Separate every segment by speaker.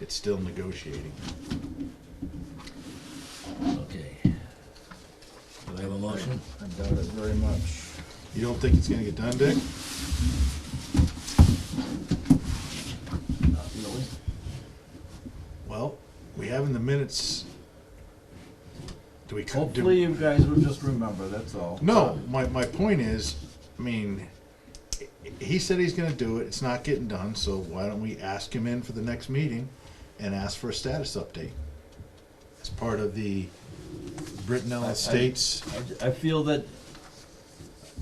Speaker 1: It's still negotiating.
Speaker 2: Okay. Do I have a motion?
Speaker 3: I doubt it very much.
Speaker 1: You don't think it's gonna get done, Dick? Well, we have in the minutes. Do we? co- do-
Speaker 3: Hopefully you guys will just remember, that's all.
Speaker 1: No, my, my point is, I mean, he said he's gonna do it, it's not getting done, so why don't we ask him in for the next meeting and ask for a status update? As part of the
Speaker 3: I- I-
Speaker 1: Brittenell Estates,
Speaker 3: I j- I feel that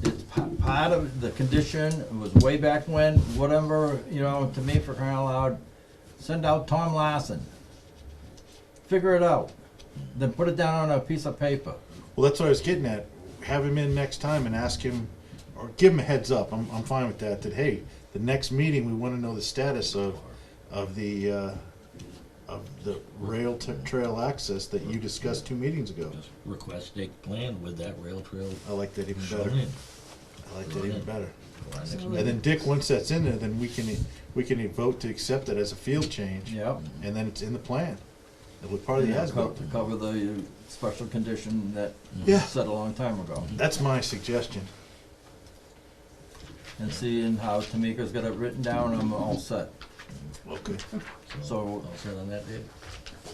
Speaker 3: it's pa- part of the condition, it was way back when, whatever, you know, to me for crying out loud, send out Tom Lassen. Figure it out, then put it down on a piece of paper.
Speaker 1: well, that's what I was getting at, have him in next time and ask him, or give him a heads up, I'm, I'm fine with that, that, hey, the next meeting, we wanna know the status of, of the, uh, of the rail t- trail access that you discussed two meetings ago.
Speaker 2: Just Request a plan with that rail trail
Speaker 1: I like that even
Speaker 2: shown
Speaker 1: better.
Speaker 2: in.
Speaker 1: I like that even better.
Speaker 2: for our next
Speaker 4: So-
Speaker 2: meeting.
Speaker 1: And then Dick, once that's in there, then we can, we can vote to accept it as a field change.
Speaker 3: Yep.
Speaker 1: And then it's in the plan. It was part of
Speaker 3: You
Speaker 1: the
Speaker 3: know,
Speaker 1: as
Speaker 3: co- To cover the uh, special condition that
Speaker 1: Yeah.
Speaker 3: was set a long time ago.
Speaker 1: That's my suggestion.
Speaker 3: And seeing how Tamika's got it written down, I'm all set.
Speaker 1: Okay.
Speaker 3: So-
Speaker 2: All set on that, Dave?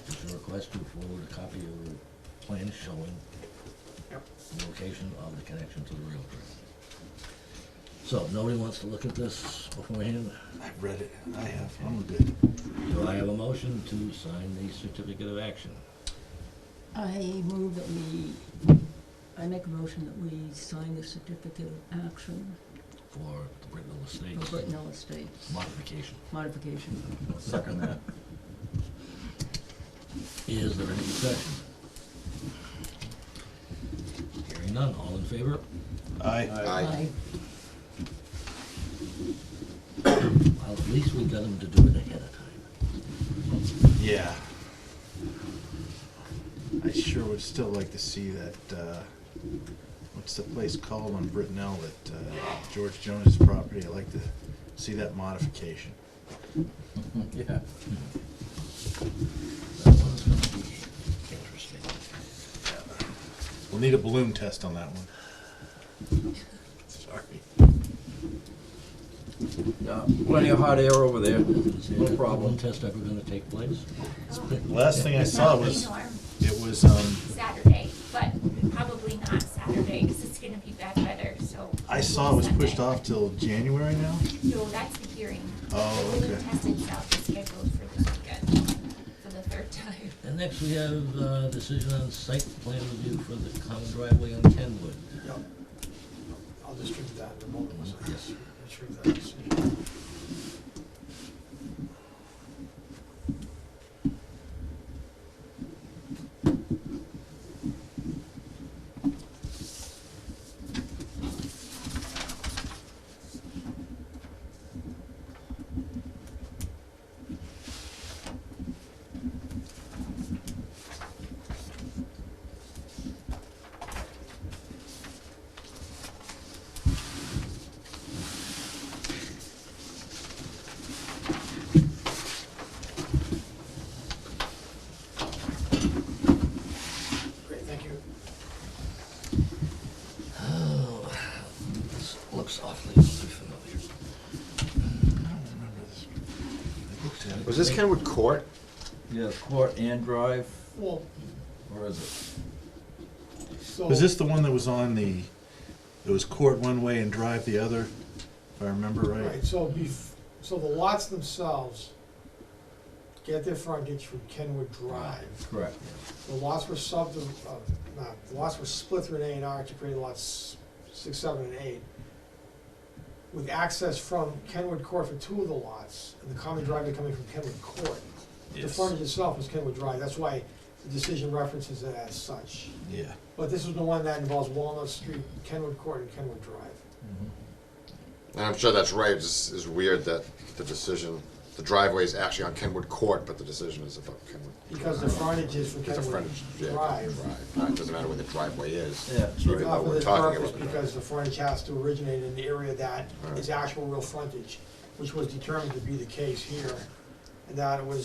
Speaker 2: Is your request to forward a copy of the plan showing the location of the connection to the rail trail? So, nobody wants to look at this beforehand?
Speaker 1: I've read it. I have. I'm good.
Speaker 2: Do I have a motion to sign the certificate of action?
Speaker 4: I move that we, I make a motion that we sign the certificate of action
Speaker 2: for the Brittenell
Speaker 4: for
Speaker 2: Estates
Speaker 4: Brittenell Estates
Speaker 2: modification.
Speaker 4: modification.
Speaker 3: Second that.
Speaker 2: Is there any discussion? Hearing none, all in favor?
Speaker 1: I,
Speaker 4: Aye.
Speaker 2: Well, at least we got them to do it ahead of time.
Speaker 1: yeah. I sure would still like to see that, uh, what's the place called on Brittenell that, uh, George Jones' property? I'd like to see that modification.
Speaker 3: Yeah.
Speaker 2: That one's gonna be interesting.
Speaker 1: We'll need a balloon test on that one. Sorry.
Speaker 3: Yeah, Uh, Plenty of hot air over there.
Speaker 2: Is there
Speaker 3: No
Speaker 2: a
Speaker 3: problem.
Speaker 2: balloon test ever gonna take place?
Speaker 1: Last thing I saw was,
Speaker 5: Probably norm
Speaker 1: it was, um,
Speaker 5: Saturday, but probably not Saturday, because it's gonna be bad weather, so.
Speaker 1: I saw it was pushed
Speaker 5: Sunday.
Speaker 1: off till January now.
Speaker 5: No, that's the hearing.
Speaker 1: Oh,
Speaker 5: The balloon
Speaker 1: okay.
Speaker 5: test itself is scheduled for this weekend, for the third time.
Speaker 2: And next we have, uh, decision on site plan review for the common driveway on Kenwood.
Speaker 6: Yeah, I'll distribute that in a moment. so I'll
Speaker 2: Yes.
Speaker 6: Distribute that decision. Great, thank you.
Speaker 2: Oh, this looks awfully familiar.
Speaker 1: I don't remember this. I looked at it.
Speaker 7: Was this Kenwood Court?
Speaker 3: Yeah, court and drive,
Speaker 6: Well,
Speaker 3: or is it?
Speaker 6: so.
Speaker 1: Was this the one that was on the, it was court one way and drive the other, if I remember
Speaker 6: Right,
Speaker 1: right?
Speaker 6: so bef, so the lots themselves get their frontage from Kenwood Drive.
Speaker 3: Correct.
Speaker 6: The lots were sub, uh, not, the lots were split through an A and R to create lots six, seven, and eight. With access from Kenwood Court for two of the lots, and the common driveway coming from Kenwood Court. The frontage itself was Kenwood Drive, that's why the decision references it as such.
Speaker 1: Yeah.
Speaker 6: But this is the one that involves Walnut Street, Kenwood Court, and Kenwood Drive.
Speaker 7: And I'm sure that's right. It's, it's weird that the decision, the driveway is actually on Kenwood Court, but the decision is about Kenwood.
Speaker 6: Because the frontage is from
Speaker 7: It's a
Speaker 6: Kenwood
Speaker 7: frontage, yeah,
Speaker 6: Drive.
Speaker 7: Drive. Uh, It doesn't matter where the driveway is.
Speaker 3: Yeah.
Speaker 6: It's
Speaker 7: Even
Speaker 6: not
Speaker 7: though
Speaker 6: for
Speaker 7: we're
Speaker 6: this
Speaker 7: talking
Speaker 6: purpose
Speaker 7: about the
Speaker 6: Because the frontage has to originate in the area that
Speaker 7: Right.
Speaker 6: is actual real frontage, which was determined to be the case here. And that it was